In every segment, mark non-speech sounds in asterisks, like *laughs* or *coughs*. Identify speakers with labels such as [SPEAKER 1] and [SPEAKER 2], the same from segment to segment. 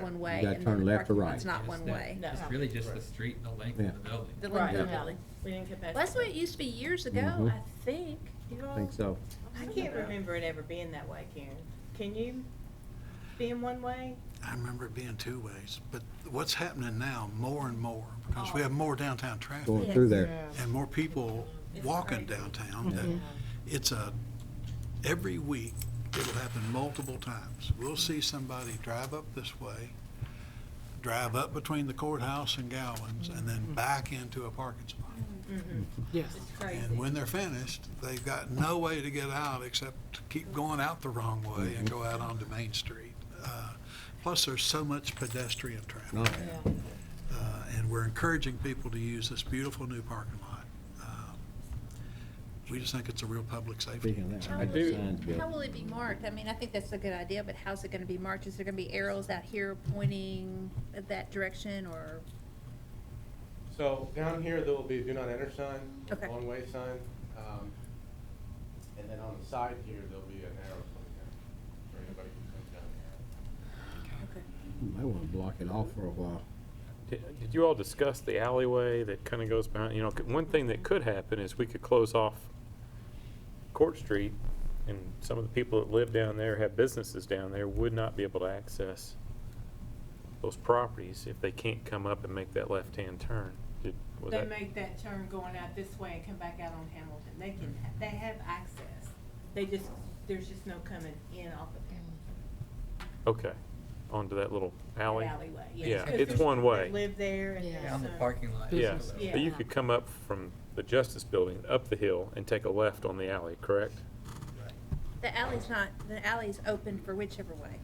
[SPEAKER 1] one way. and
[SPEAKER 2] gotta
[SPEAKER 1] then
[SPEAKER 2] turn
[SPEAKER 1] the
[SPEAKER 2] left or
[SPEAKER 1] parking
[SPEAKER 2] right.
[SPEAKER 1] lot's not one
[SPEAKER 3] that-
[SPEAKER 1] way.
[SPEAKER 4] No.
[SPEAKER 3] It's really just the street and the length
[SPEAKER 2] Yeah.
[SPEAKER 3] of the building.
[SPEAKER 1] The
[SPEAKER 4] Right,
[SPEAKER 1] length
[SPEAKER 2] Yeah.
[SPEAKER 1] of
[SPEAKER 4] the
[SPEAKER 1] the
[SPEAKER 4] alley. We didn't get past.
[SPEAKER 1] Well, That's the
[SPEAKER 4] that.
[SPEAKER 1] way it used to be years ago,
[SPEAKER 2] Mhm.
[SPEAKER 1] I think. You all-
[SPEAKER 2] I think so.
[SPEAKER 4] I can't remember it ever being that way, Karen. Can you? Being one way?
[SPEAKER 5] I remember it being two ways, but what's happening now, more and more, because we have more downtown
[SPEAKER 2] Going
[SPEAKER 5] traffic
[SPEAKER 2] through there.
[SPEAKER 5] and more people walking downtown, that it's a, every week, it'll happen multiple times. We'll see somebody drive up this way, drive up between the courthouse and Gowans, and then back into a parking spot.
[SPEAKER 1] Mm-hmm.
[SPEAKER 6] Yes.
[SPEAKER 4] It's crazy.
[SPEAKER 5] And when they're finished, they've got no way to get out except to keep going out the wrong way and go out onto Main Street. Uh, Plus, there's so much pedestrian traffic.
[SPEAKER 2] No.
[SPEAKER 5] Uh, And we're encouraging people to use this beautiful new parking lot. Uh, We just think it's a real public safety.
[SPEAKER 2] Speaking of that,
[SPEAKER 1] How
[SPEAKER 2] I
[SPEAKER 1] will
[SPEAKER 2] do-
[SPEAKER 1] it-
[SPEAKER 2] Signs built.
[SPEAKER 1] How will it be marked? I mean, I think that's a good idea, but how's it gonna be marked? Is there gonna be arrows out here pointing at that direction or?
[SPEAKER 7] So down here, there will be a do not enter sign,
[SPEAKER 1] Okay.
[SPEAKER 7] a one-way sign. um, And then on the side here, there'll be an arrow pointing down for anybody who comes down here.
[SPEAKER 1] Okay.
[SPEAKER 2] Might wanna block it off for a while.
[SPEAKER 8] Did did you all discuss the alleyway that kind of goes behind, you know, c- one thing that could happen is we could close off Court Street, and some of the people that live down there, have businesses down there, would not be able to access those properties if they can't come up and make that left-hand turn. Did- was
[SPEAKER 4] They
[SPEAKER 8] that-
[SPEAKER 4] make that turn going out this way and come back out on Hamilton. They can, they have access. They just, there's just no coming in off of Hamilton.
[SPEAKER 8] Okay, onto that little alley?
[SPEAKER 4] Alleyway, yes.
[SPEAKER 8] Yeah,
[SPEAKER 4] 'Cause
[SPEAKER 8] it's
[SPEAKER 4] there's
[SPEAKER 8] one
[SPEAKER 4] people that
[SPEAKER 8] way.
[SPEAKER 4] Live there and.
[SPEAKER 6] Yeah.
[SPEAKER 4] there's
[SPEAKER 6] Yeah, on
[SPEAKER 3] the
[SPEAKER 4] some-
[SPEAKER 3] parking lot.
[SPEAKER 8] Yeah,
[SPEAKER 6] Business.
[SPEAKER 8] but you
[SPEAKER 4] Yeah.
[SPEAKER 8] could come up from the Justice Building, up the hill, and take a left on the alley, correct?
[SPEAKER 1] The alley's not, the alley's open for whichever way.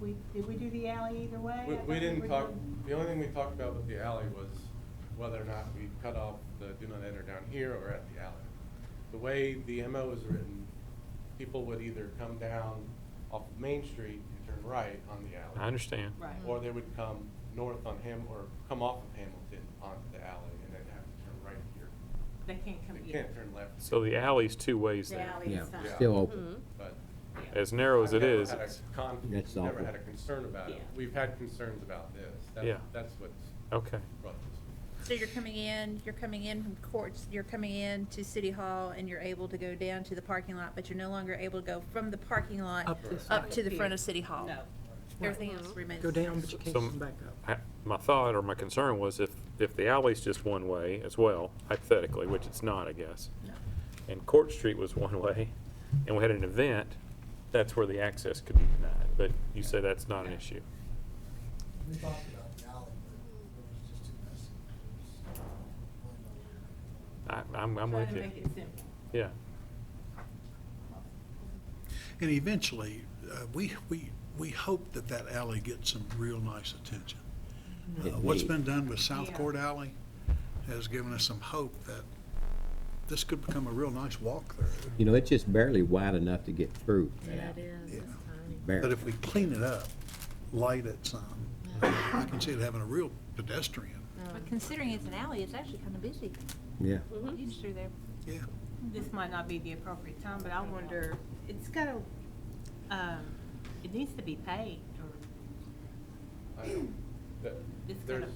[SPEAKER 4] We, did we do the alley either way? I
[SPEAKER 7] We-
[SPEAKER 4] thought
[SPEAKER 7] We didn't
[SPEAKER 4] were
[SPEAKER 7] talk,
[SPEAKER 4] doing-
[SPEAKER 7] the only thing we talked about with the alley was whether or not we cut off the do not enter down here or at the alley. The way the MO is written, people would either come down off of Main Street and turn right on the alley.
[SPEAKER 8] I understand.
[SPEAKER 4] Right.
[SPEAKER 7] Or they would come north on Ham, or come off of Hamilton onto the alley and then have to turn right here.
[SPEAKER 4] They can't come
[SPEAKER 7] They
[SPEAKER 4] in.
[SPEAKER 7] can't turn left.
[SPEAKER 8] So the alley's two ways
[SPEAKER 4] The
[SPEAKER 8] there.
[SPEAKER 4] alley
[SPEAKER 2] Yeah,
[SPEAKER 4] is fine.
[SPEAKER 2] still open.
[SPEAKER 7] But
[SPEAKER 8] As narrow as
[SPEAKER 7] I've
[SPEAKER 8] it
[SPEAKER 7] never
[SPEAKER 8] is,
[SPEAKER 7] had a
[SPEAKER 8] it's-
[SPEAKER 7] con-
[SPEAKER 2] That's
[SPEAKER 7] Never
[SPEAKER 2] awful.
[SPEAKER 7] had a concern about it.
[SPEAKER 4] Yeah.
[SPEAKER 7] We've had concerns about this. That-
[SPEAKER 8] Yeah.
[SPEAKER 7] That's what's
[SPEAKER 8] okay,
[SPEAKER 7] brought this.
[SPEAKER 1] So you're coming in, you're coming in from courts, you're coming in to City Hall and you're able to go down to the parking lot, but you're no longer able to go from the parking lot
[SPEAKER 6] Up this
[SPEAKER 1] up
[SPEAKER 6] way.
[SPEAKER 1] to the front of City Hall.
[SPEAKER 4] No.
[SPEAKER 1] Everything else remains.
[SPEAKER 6] Go
[SPEAKER 1] the
[SPEAKER 6] down,
[SPEAKER 1] same.
[SPEAKER 6] but you can't
[SPEAKER 8] So-
[SPEAKER 6] come back up.
[SPEAKER 8] I- my thought or my concern was if, if the alley's just one way as well, hypothetically, which it's not, I guess,
[SPEAKER 1] No.
[SPEAKER 8] and Court Street was *laughs* one way, and we had an event, that's where the access could be denied, but you say that's not an issue.
[SPEAKER 9] We talked about the alley, but it was just too messy. It was- we're not gonna make
[SPEAKER 8] I, I'm, I'm
[SPEAKER 4] Try
[SPEAKER 8] with
[SPEAKER 4] to
[SPEAKER 8] you.
[SPEAKER 4] make it simple.
[SPEAKER 8] Yeah,
[SPEAKER 5] And eventually, uh, we, we, we hope that that alley gets some real nice attention. Uh,
[SPEAKER 2] It
[SPEAKER 5] What's
[SPEAKER 2] may.
[SPEAKER 5] been done with South
[SPEAKER 4] Yeah.
[SPEAKER 5] Court Alley has given us some hope that this could become a real nice walk through.
[SPEAKER 2] You know, it's just barely wide enough to get through.
[SPEAKER 6] That is,
[SPEAKER 5] Yeah.
[SPEAKER 6] it's tiny.
[SPEAKER 5] But
[SPEAKER 2] Barely.
[SPEAKER 5] if we clean it up, light it some, I can see it having a real pedestrian,
[SPEAKER 1] But considering it's an alley, it's actually kind of busy.
[SPEAKER 2] Yeah.
[SPEAKER 1] You just threw there.
[SPEAKER 5] yeah.
[SPEAKER 4] This might not be the appropriate time, but I wonder, it's gotta, um, it needs to be paid or *coughs*
[SPEAKER 7] I know that
[SPEAKER 4] It's kind
[SPEAKER 7] There's,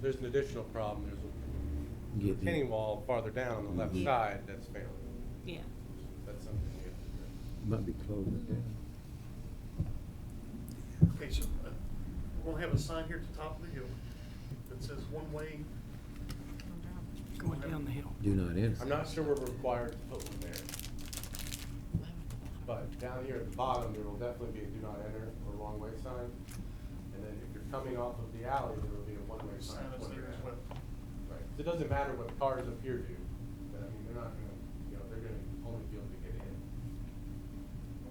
[SPEAKER 7] there's an additional problem. There's a
[SPEAKER 2] Get the-
[SPEAKER 7] retaining wall farther down on the left
[SPEAKER 2] Yeah.
[SPEAKER 7] side that's failing.
[SPEAKER 4] Yeah.
[SPEAKER 7] That's something we have to address.
[SPEAKER 2] Might be closed at that.
[SPEAKER 9] it. Okay, so uh, we're gonna have a sign here at the top of the hill that says one way.
[SPEAKER 6] Going down the hill.
[SPEAKER 2] Do not enter.
[SPEAKER 7] I'm not sure we're required to put one there. But down here at the bottom, there will definitely be a do not enter or wrong way sign. And then if you're coming off of the alley, there will be a one-way sign.
[SPEAKER 9] Sign is
[SPEAKER 7] pointing
[SPEAKER 9] there as
[SPEAKER 7] out.
[SPEAKER 9] well.
[SPEAKER 7] Right, So it doesn't matter what cars up here do, but I mean, they're not gonna, you know, they're gonna only be able to get in.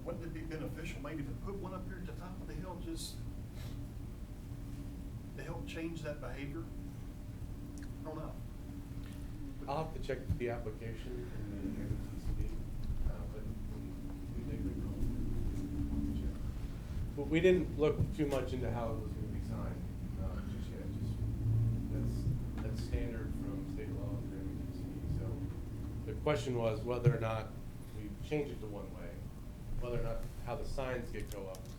[SPEAKER 9] Wouldn't it be beneficial maybe to put one up here at the top of the hill just to help change that behavior? I don't know.
[SPEAKER 7] I'll have to check the application and the MTCD, uh, but we did recall. But we didn't look too much into how it was gonna be signed, uh, just yet, just, that's, that's standard from state law for MTCD. So the question was whether or not we change it to one way, whether or not, how the signs get go up